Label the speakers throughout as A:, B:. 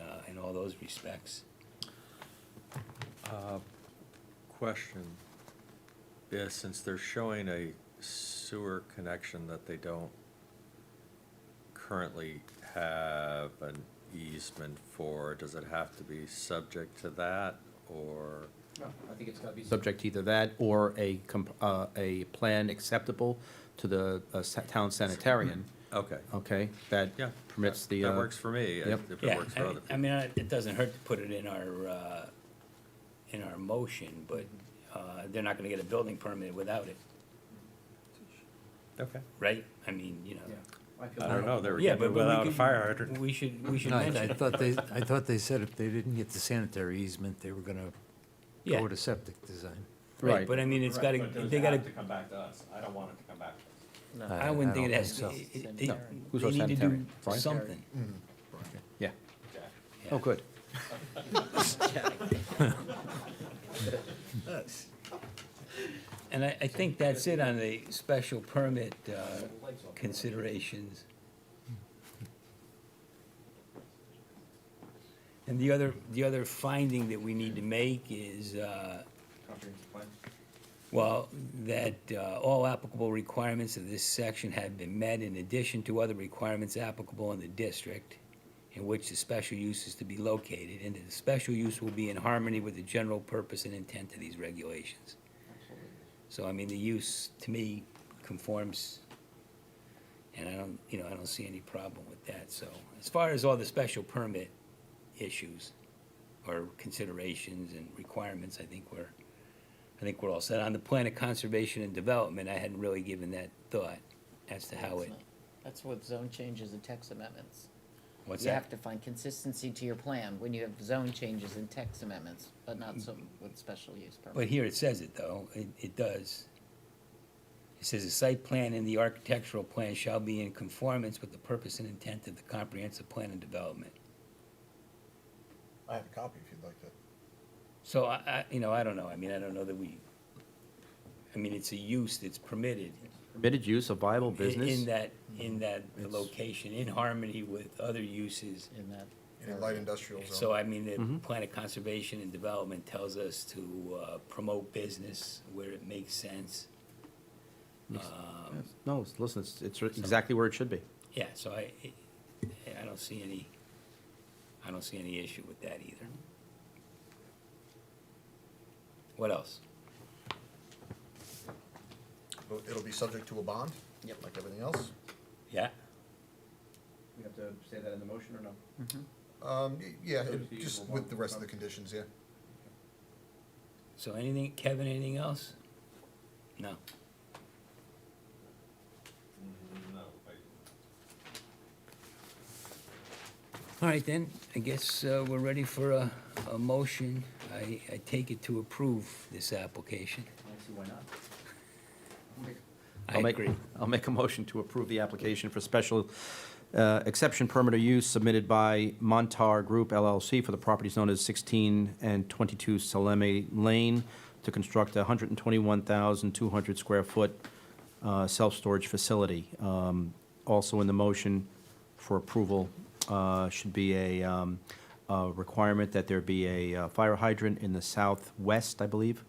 A: uh, all those respects.
B: Question, is since they're showing a sewer connection that they don't currently have an easement for, does it have to be subject to that, or?
C: No, I think it's gotta be.
D: subject to either that or a, comp- uh, a plan acceptable to the uh, sa- town sanitarian,
B: Okay,
D: okay? That
B: yeah.
D: permits
B: that-
D: the.
B: That
D: uh,
B: works for me, if
D: yep.
B: if it
A: Yeah,
B: works for
A: I
B: other
A: I
B: people.
A: mean, I- it doesn't hurt to put it in our, uh, in our motion, but uh, they're not gonna get a building permit without it,
B: Okay,
A: right? I mean, you know.
C: Yeah, I feel
B: I don't
C: that.
B: know, they were
A: Yeah,
B: getting
A: but-
B: it
A: but we
B: without a
A: could-
B: fire hydrant.
A: We should, we should
E: No, I
A: mention.
E: thought they, I thought they said if they didn't get the sanitary easement, they were gonna
A: Yeah,
E: go to septic design.
D: Right.
A: But I mean, it's gotta, they gotta,
B: come back to us, I don't want it to come back to us.
A: I wouldn't think it
E: don't
A: has,
E: so.
A: it- it- they,
D: No. Who's
A: they
D: our
A: need to do
D: sanitarian? Brian?
A: something.
D: Yeah.
A: Yeah.
D: Oh, good.
A: And I, I think that's it on the special permit uh, considerations. And the other, the other finding that we need to make is, uh,
C: Comprehensive plan.
A: well, that uh, all applicable requirements of this section have been met in addition to other requirements applicable in the district in which the special use is to be located, and that the special use will be in harmony with the general purpose and intent of these regulations. So, I mean, the use, to me, conforms, and I don't, you know, I don't see any problem with that, so. As far as all the special permit issues or considerations and requirements, I think we're, I think we're all set. On the plan of conservation and development, I hadn't really given that thought as to how it,
F: That's what zone changes and text amendments.
A: what's
F: You have
A: that?
F: to find consistency to your plan when you have zone changes and text amendments, but not so
A: Mm.
F: with special use
A: But
F: permit.
A: here it says it, though, it, it does. It says the site plan and the architectural plan shall be in conformance with the purpose and intent of the comprehensive plan and development.
G: I have a copy if you'd like to.
A: So I, I, you know, I don't know, I mean, I don't know that we, I mean, it's a use that's permitted.
D: Permitted use of viable
A: i- In
D: business,
A: that, in that
E: It's-
A: location, in harmony with other uses.
F: In that.
G: In a light industrial zone.
A: So I mean, the plan of conservation and development tells us to uh, promote business where it makes sense. Um,
D: no, it's- listen, it's, it's exactly where it should be.
A: Yeah, so I, I don't see any, I don't see any issue with that either. What else?
G: It'll- It'll be subject to a bond?
F: Yep.
G: Like everything else?
A: Yeah?
C: We have to say that in the motion or no?
G: Um, y- yeah,
C: So
G: it-
C: it's the
G: just
C: usual
G: with
C: bond.
G: the rest of the conditions, yeah.
A: So anything, Kevin, anything else? No. All right, then, I guess uh, we're ready for a, a motion. I, I take it to approve this application.
C: I don't see why not.
A: I
D: I'll make-
A: agree.
D: I'll make a motion to approve the application for special uh, exception permit or use submitted by Montar Group LLC for the properties known as 16 and 22 Salemi Lane to construct a 121,200 square foot uh, self-storage facility. Um, Also in the motion for approval uh, should be a um, a requirement that there be a uh, fire hydrant in the southwest, I believe,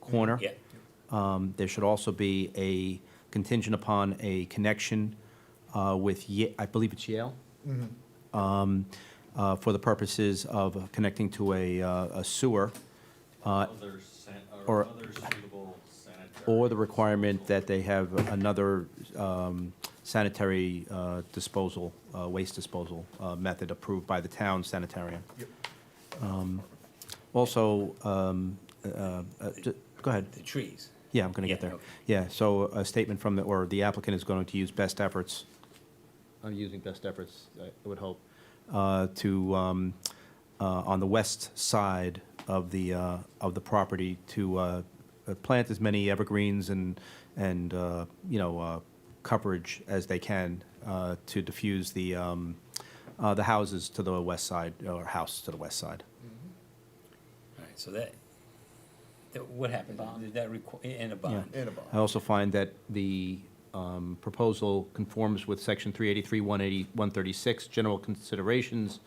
D: corner.
A: Yeah,
D: Um, There should also be a contingent upon a connection uh, with, Ye- I believe it's Yale, Um, uh, for the purposes of connecting to a uh, a sewer, uh,
B: Other san-
D: or-
B: or other suitable sanitary.
D: or the requirement that they have another um, sanitary uh, disposal, uh, waste disposal uh, method approved by the town sanitarian.
G: Yep.
D: Um, Also, um, uh, uh, ju- go ahead.
A: the trees.
D: Yeah, I'm going to
A: Yeah,
D: get there.
A: okay.
D: Yeah, so a statement from, the or the applicant is going to use best efforts, I'm using best efforts, I would hope, uh, to, um, uh, on the west side of the, uh, of the property, to uh, uh, plant as many evergreens and, and, uh, you know, uh, coverage as they can uh, to diffuse the, um, uh, the houses to the west side, or house to the west side.
A: All right, so that, that, what happened?
F: Bond.
A: Did that require, and a bond?
G: And a bond.
D: I also find that the um, proposal conforms with Section 383, 180, 136, general considerations